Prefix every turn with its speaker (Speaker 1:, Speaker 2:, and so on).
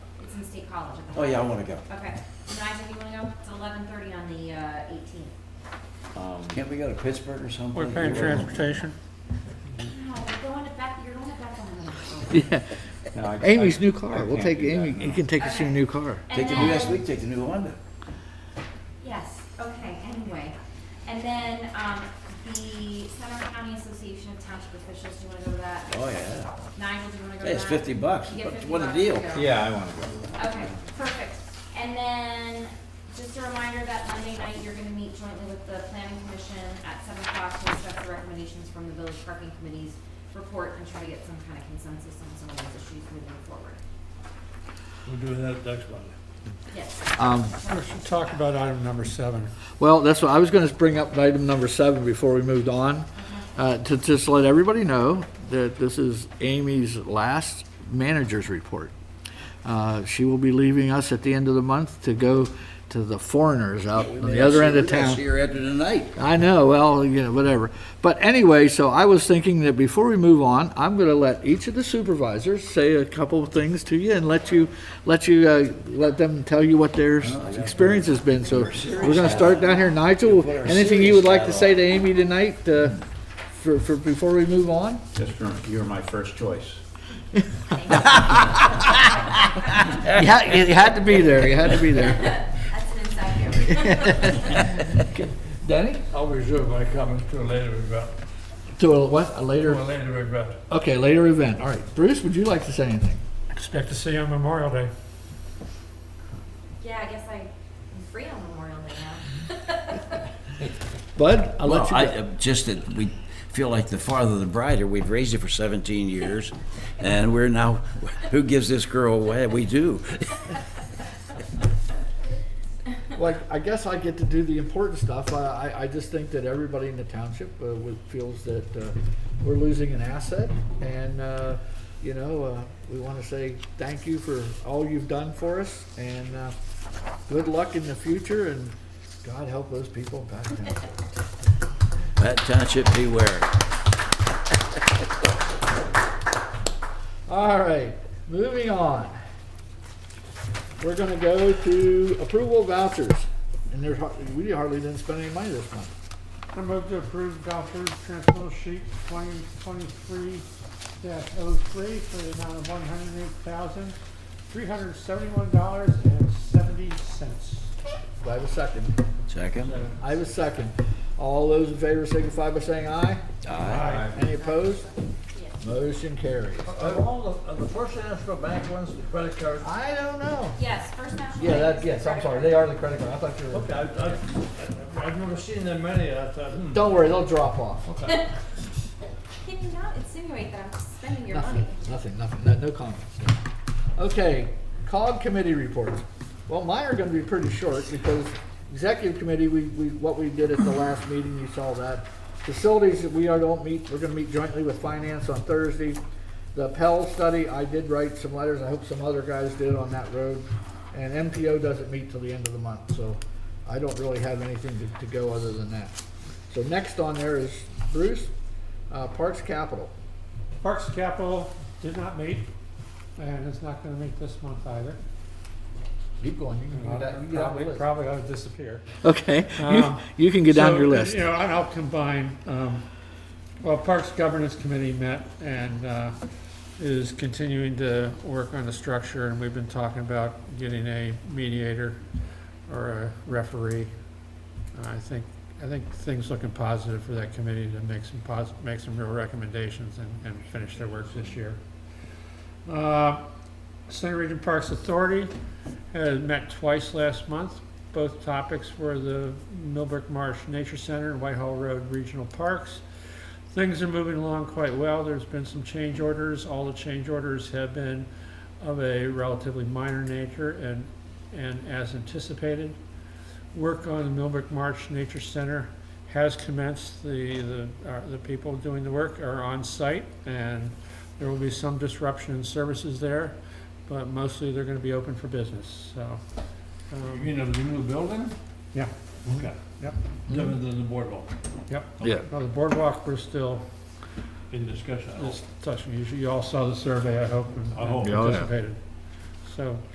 Speaker 1: State College. I
Speaker 2: Oh,
Speaker 1: think.
Speaker 2: yeah, I wanna go.
Speaker 1: Okay, And Isaac, you wanna go? It's eleven thirty on the uh, eighteenth.
Speaker 3: Um,
Speaker 2: Can't we go to Pittsburgh or something?
Speaker 4: We're paying transportation.
Speaker 1: No, we're going to Beth, you're going to Beth on the
Speaker 5: Yeah,
Speaker 3: no, I-
Speaker 5: Amy's
Speaker 3: I-
Speaker 5: new
Speaker 3: I
Speaker 5: car. We'll
Speaker 3: can't
Speaker 5: take
Speaker 3: do that,
Speaker 5: Amy,
Speaker 3: no.
Speaker 5: you can take us to your new car.
Speaker 2: Take the new SUV, take the new Honda.
Speaker 1: Yes, okay, anyway. And then, um, the Center County Association of Township Officials, do you wanna go to that?
Speaker 2: Oh, yeah.
Speaker 1: Nigel, do you wanna go to that?
Speaker 2: Hey, it's fifty bucks.
Speaker 1: You get 50
Speaker 2: What a
Speaker 1: bucks
Speaker 2: deal.
Speaker 1: to go.
Speaker 3: Yeah, I wanna go.
Speaker 1: Okay, perfect. And then, just a reminder that Monday night, you're gonna meet jointly with the planning commission at seven o'clock to discuss the recommendations from the village parking committee's report and try to get some kind of consensus on some of those issues moving forward.
Speaker 6: We'll do that next Monday.
Speaker 1: Yes,
Speaker 5: Um,
Speaker 4: We should talk about item number seven.
Speaker 5: Well, that's what, I was gonna bring up item number seven before we moved on, uh, to just let everybody know that this is Amy's last manager's report. Uh, She will be leaving us at the end of the month to go to the foreigners out on the other end of town.
Speaker 2: See her after tonight.
Speaker 5: I know, well, you know, whatever. But anyway, so I was thinking that before we move on, I'm gonna let each of the supervisors say a couple of things to you and let you, let you, uh, let them tell you what their s- experience has been. So we're gonna start down here. Nigel,
Speaker 2: Put our
Speaker 5: anything you would like to
Speaker 2: serious
Speaker 5: say to Amy tonight, uh, for, for, before we move on?
Speaker 3: Just remember, you're my first choice.
Speaker 5: You had, you had to be there, you had to be there.
Speaker 1: that's an inside joke.
Speaker 5: Danny?
Speaker 6: I'll reserve my comments to a later event,
Speaker 5: To a uh, what, a
Speaker 6: to a
Speaker 5: later,
Speaker 6: later event.
Speaker 5: okay, later event. All right. Bruce, would you like to say anything?
Speaker 4: Expect to see you on Memorial Day.
Speaker 1: Yeah, I guess I'm free on Memorial Day now.
Speaker 5: Bud, I'll
Speaker 2: Well,
Speaker 5: let you
Speaker 2: I,
Speaker 5: go.
Speaker 2: uh, just that we feel like the farther the brighter. We've raised it for 17 years, and we're now, who gives this girl away? We do.
Speaker 5: Like, I guess I get to do the important stuff. I, I, I just think that everybody in the township uh, would, feels that uh, we're losing an asset. And, uh, you know, uh, we want to say thank you for all you've done for us and uh, good luck in the future and God help those people back then.
Speaker 2: That township beware.
Speaker 5: All right, moving on. We're gonna go to approval of vouchers. And there's, har- we hardly didn't spend any money this month.
Speaker 7: I move to approve vouchers transmittal sheet twenty twenty-three dash oh three for the amount of one hundred eight thousand, three hundred seventy-one dollars and seventy cents.
Speaker 5: Do I have a second?
Speaker 2: Second?
Speaker 5: I have a second. All those in favor signify by saying aye.
Speaker 2: Aye.
Speaker 5: Any opposed? Motion carries.
Speaker 6: Are all the, are the First National Bank ones, the credit cards?
Speaker 5: I don't know.
Speaker 1: Yes, First National.
Speaker 5: Yeah,
Speaker 1: Bank
Speaker 5: that,
Speaker 1: is
Speaker 5: yes, I'm
Speaker 1: credit
Speaker 5: sorry,
Speaker 1: card.
Speaker 5: they are the credit card, I thought you were.
Speaker 6: Okay, I, I, I've never seen that many, I thought, hmm.
Speaker 5: Don't worry, they'll drop off.
Speaker 1: Can you not insinuate that I'm spending your money?
Speaker 5: Nothing, nothing, nothing, no, no comments. no. Okay, COG committee reports. Well, mine are gonna be pretty short because executive committee, we, we, what we did at the last meeting, you saw that. Facilities, we are, don't meet, we're gonna meet jointly with finance on Thursday. The Pell study, I did write some letters, I hope some other guys did on that road. And MPO doesn't meet till the end of the month, so I don't really have anything to, to go other than that. So next on there is Bruce, uh, Parks Capital.
Speaker 7: Parks Capital did not meet, and it's not gonna meet this month either.
Speaker 5: Keep going, you can do that, you get out the
Speaker 7: Probably,
Speaker 5: list.
Speaker 7: probably ought to disappear.
Speaker 5: Okay, you,
Speaker 7: Um,
Speaker 5: you can get down
Speaker 7: So,
Speaker 5: your list.
Speaker 7: You know, and I'll combine, um, well, Parks Governance Committee met and, uh, is continuing to work on the structure, and we've been talking about getting a mediator or a referee. And I think, I think things looking positive for that committee to make some pos, make some real recommendations and, and finish their work this year. Uh, Center Region Parks Authority had met twice last month. Both topics were the Millbrook Marsh Nature Center and Whitehall Road Regional Parks. Things are moving along quite well. There's been some change orders. All the change orders have been of a relatively minor nature and, and as anticipated. Work on the Millbrook Marsh Nature Center has commenced. The, the, uh, the people doing the work are on site and there will be some disruption in services there, but mostly they're gonna be open for business, so.
Speaker 6: You
Speaker 7: um,
Speaker 6: mean of the new building?
Speaker 7: Yeah.
Speaker 6: Okay.
Speaker 7: Yep.
Speaker 6: Different than the boardwalk,
Speaker 5: Yeah.
Speaker 7: Well, the boardwalk, we're still,
Speaker 6: in discussion, I hope.
Speaker 7: just touching, you You all saw the survey, I hope, and
Speaker 6: I hope.
Speaker 7: and
Speaker 5: Yeah, oh, yeah.
Speaker 7: participated. So,